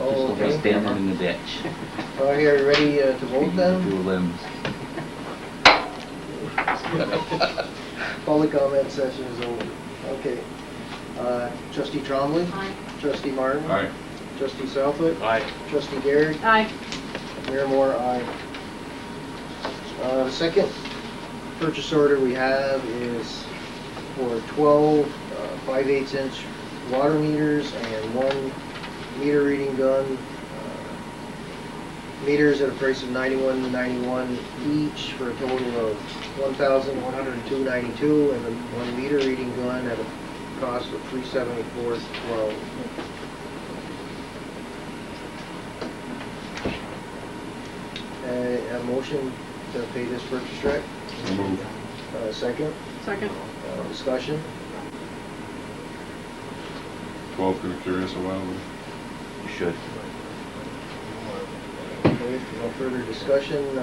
Oh, Just okay. standing in the ditch. Well, here, you ready uh, to vote Two then? limbs. Public comment session is over. Okay. Uh, Trustee Trombley. Aye. Trustee Martin. Aye. Trustee Southwood. Aye. Trustee Garrett. Aye. Mayor Moore, aye. Uh, the second purchase order we have is for twelve, uh, five-eighths inch water meters and one meter reading gun. uh, Meters at a price of ninety-one ninety-one each for a total of one thousand one hundred and two ninety-two, and the one meter reading gun at a cost of three seventy-four twelve. A, a motion to pay this purchase check, So moved. uh, second, Second. uh, discussion. Twelve could have carried us a while, You should. Okay, No further discussion, uh,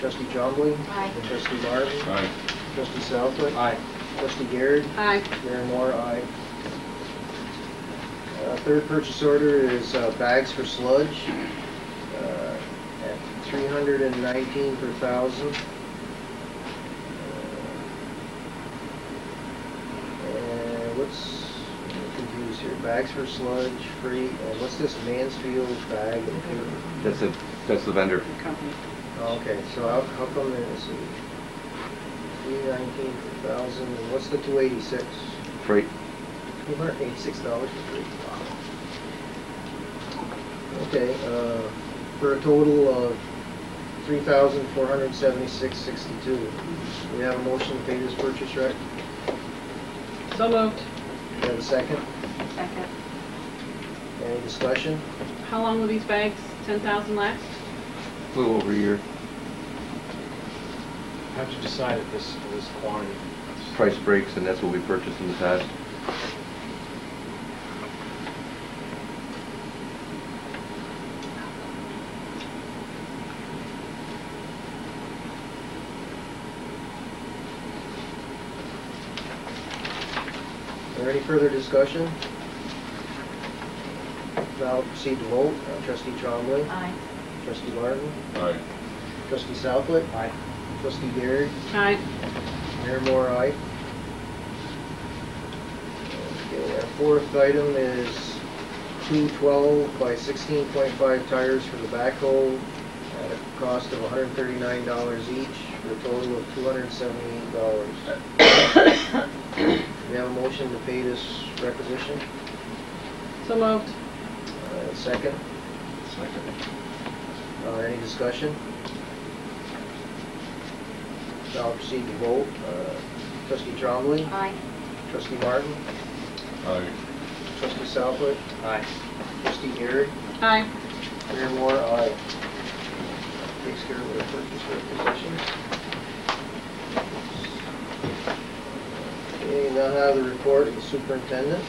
trustee Chombley. Aye. Trustee but, Marvin. aye. Trustee Southwood. Aye. Trustee Garrett. Aye. Mayor Moore, aye. Uh, Third purchase order is uh, bags for sludge uh, at 319 per thousand. Uh, And what's, I'm confused here, bags for sludge, free, and what's this Mansfield bag? and- That's a, that's the vendor. Company. Okay, so how how come there's a 319 per thousand, and what's the 286? Freight. Two hundred eighty-six dollars for three. Okay, uh, for a total of three thousand four hundred seventy-six sixty-two. We have a motion to pay this purchase, right? So moved. We have a second? Second. Any discussion? How long will these bags, ten thousand last? A little over a year. How'd you decide at this, this quantity? Price breaks and that's what we purchased in the past. Is there any further discussion? Now proceed to vote. Uh, Trustee Trombley. Aye. Trustee Martin. Aye. Trustee Southwood. Aye. Trustee Garrett. Aye. Mayor Moore, aye. Okay, our fourth item is two twelve by sixteen point five tires for the backhoe at a cost of hundred and thirty-nine dollars each, for a total of two hundred and seventy-eight dollars. We have a motion to pay this requisition, So moved. uh, second, Second. uh, any discussion? Now proceed to vote, uh, trustee Trombley, Aye. trustee Martin, Aye. trustee Southwood, Aye. trustee Garrett, Aye. Mayor Moore, aye. Takes care of the purchase requisitions. Okay, now have the report of the superintendent.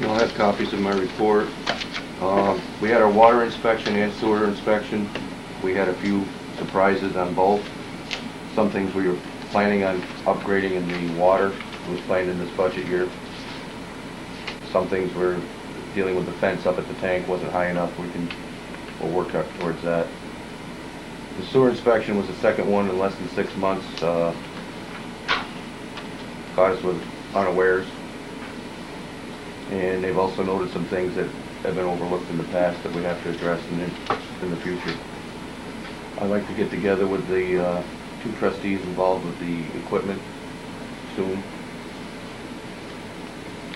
You'll have copies of my report. Um, We had our water inspection and sewer inspection. We had a few surprises on both. Some things we were planning on upgrading in the water, was planned in this budget year. Some things we're dealing with the fence up at the tank wasn't high enough, we can, we'll work up towards that. The sewer inspection was the second one in less than six months. uh, Caught us with unawares. And they've also noted some things that have been overlooked in the past that we have to address in, the- in the future. I'd like to get together with the, uh, two trustees involved with the equipment soon.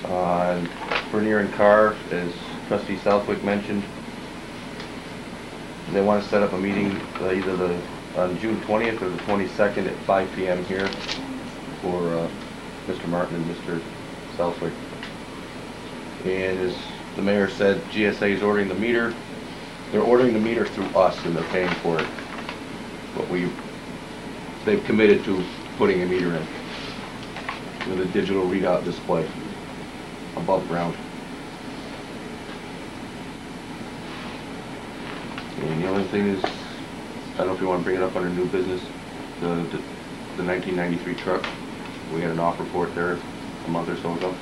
Uh, Bernier and Carr, as trustee Southwick mentioned, they want to set up a meeting uh, either the, on June twentieth or the twenty-second at five PM here for, uh, Mr. Martin and Mr. Southwick. And as the mayor said, GSA is ordering the meter. They're ordering the meter through us and they're paying for it. But we, they've committed to putting a meter in with a digital readout display above ground. And the only thing is, I don't know if you want to bring it up under new business, the, the 1993 truck. We had an offer for it there a month or so ago.